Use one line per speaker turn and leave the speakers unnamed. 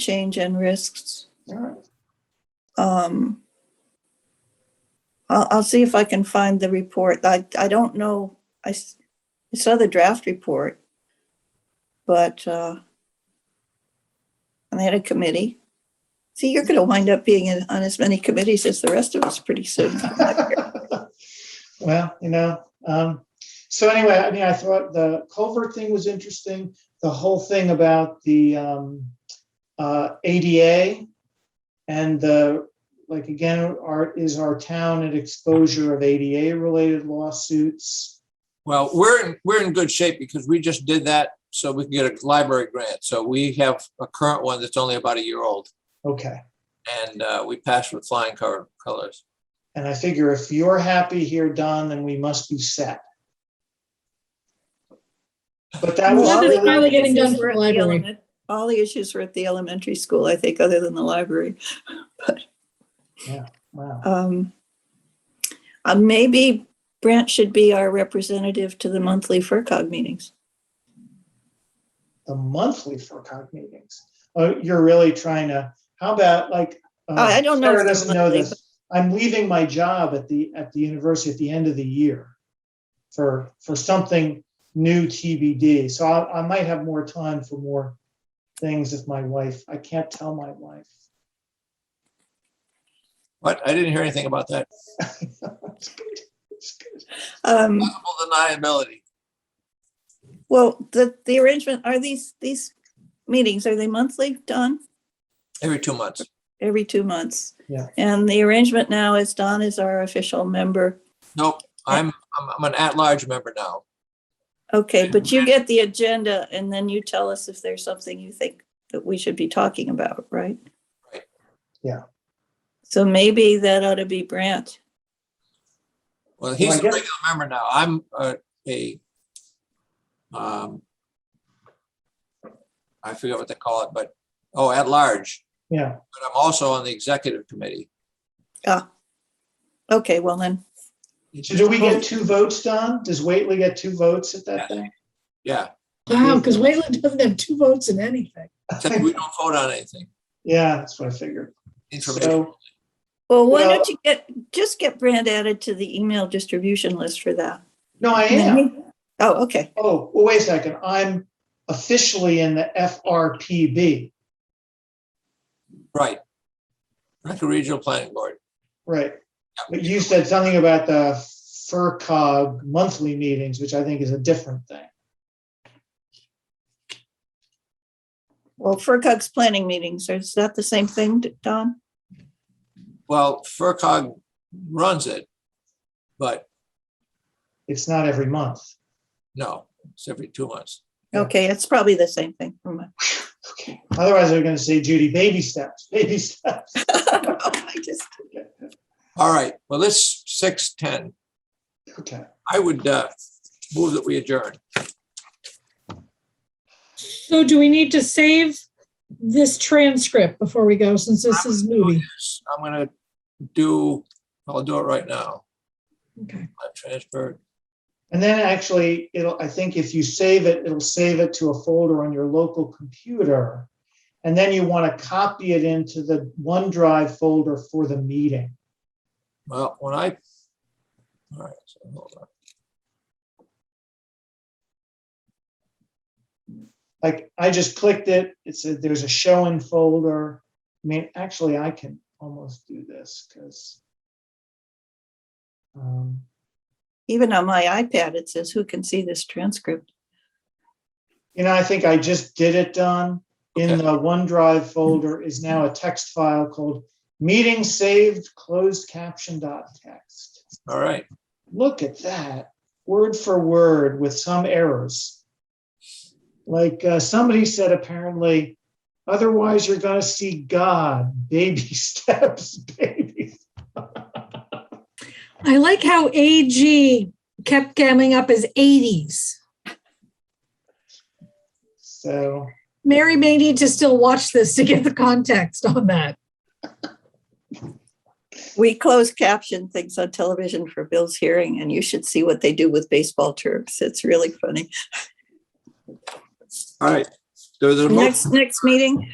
change and risks.
All right.
Um, I'll, I'll see if I can find the report. I, I don't know. I, s- I saw the draft report. But, uh, and they had a committee. See, you're going to wind up being in- on as many committees as the rest of us pretty soon.
Well, you know, um, so anyway, I mean, I thought the culvert thing was interesting. The whole thing about the, um, uh, ADA and the, like, again, our, is our town at exposure of ADA related lawsuits?
Well, we're, in we're in good shape because we just did that so we can get a library grant. So we have a current one that's only about a year old
Okay.
and uh, we passed with flying color- colors.
And I figure if you're happy here, Don, then we must be set. But that was
Well, that is
really.
probably getting done for
We're at
the
the
library.
element- All the issues were at the elementary school, I think, other than the library.
Wow.
Um, uh, maybe Brent should be our representative to the monthly FERCog meetings.
the monthly FERCog meetings. Oh, you're really trying to, how about like? uh,
Oh, I- I don't know
Sarah
if they're
doesn't know
monthly,
this. I'm leaving my job at the, at the university at the end of the year for, for something new TBD. So I, I might have more time for more things if my wife, I can't tell my wife.
What? I didn't hear anything about that.
It's good. It's good.
Um,
Plausible Deniability.
well, the, the arrangement, are these, these meetings, are they monthly, Don?
Every two months.
Every two months?
Yeah.
And the arrangement now is Don is our official member.
Nope, I'm, I'm, I'm an at-large member now.
Okay, but you get the agenda and then you tell us if there's something you think that we should be talking about, right?
Right.
Yeah.
So maybe that ought to be Brent.
Well,
Well, I
he's a
guess-
regular member now. I'm uh, a, um, I forget what they call it, but, oh, at-large.
Yeah,
But I'm also on the executive committee.
Okay, well then,
so do we get two votes, Don? Does Waitley get two votes at that thing?
Yeah,
Wow, because Wayland doesn't have two votes in anything.
except we don't vote on anything.
Yeah, that's what I figured.
Information.
So,
well, why
Well-
don't you get, just get Brent added to the email distribution list for that.
no, I
And then
am.
we- Oh, okay,
Oh, well, wait a second. I'm officially in the FRPB.
Right. Rancho Regional Planning Board.
Right. But you said something about the FERCog monthly meetings, which I think is a different thing.
well, FERCog's planning meetings, is that the same thing, Don?
Well, FERCog runs it, but
It's not every month.
no, it's every two months.
Yeah.
Okay, it's probably the same thing. Never mind.
Okay. Otherwise, I'm going to say, Judy, baby steps, baby steps.
I just-
All right, well, this six ten,
Okay.
I would uh, move that we adjourn.
So do we need to save this transcript before we go, since this is movie?
I'm gonna do, I'll do it right now.
Okay.
I've transferred.
And then actually, it'll, I think if you save it, it'll save it to a folder on your local computer. And then you want to copy it into the OneDrive folder for the meeting.
Well, when I, all right, so hold on.
like I just clicked it. It said there's a show in folder. I mean, actually, I can almost do this because. Um,
Even on my iPad, it says, who can see this transcript?
you know, I think I just did it, Don. In
Okay.
the OneDrive folder is now a text file called meeting saved closed caption dot text.
All right,
Look at that, word for word with some errors. Like uh, somebody said, apparently, otherwise you're going to see God, baby steps, baby.
I like how AG kept coming up as 80s.
So,
Mary may need to still watch this to get the context on that.
We close caption things on television for Bill's hearing and you should see what they do with baseball terms. It's really funny.
all right. There's a, mo-
Next, next meeting,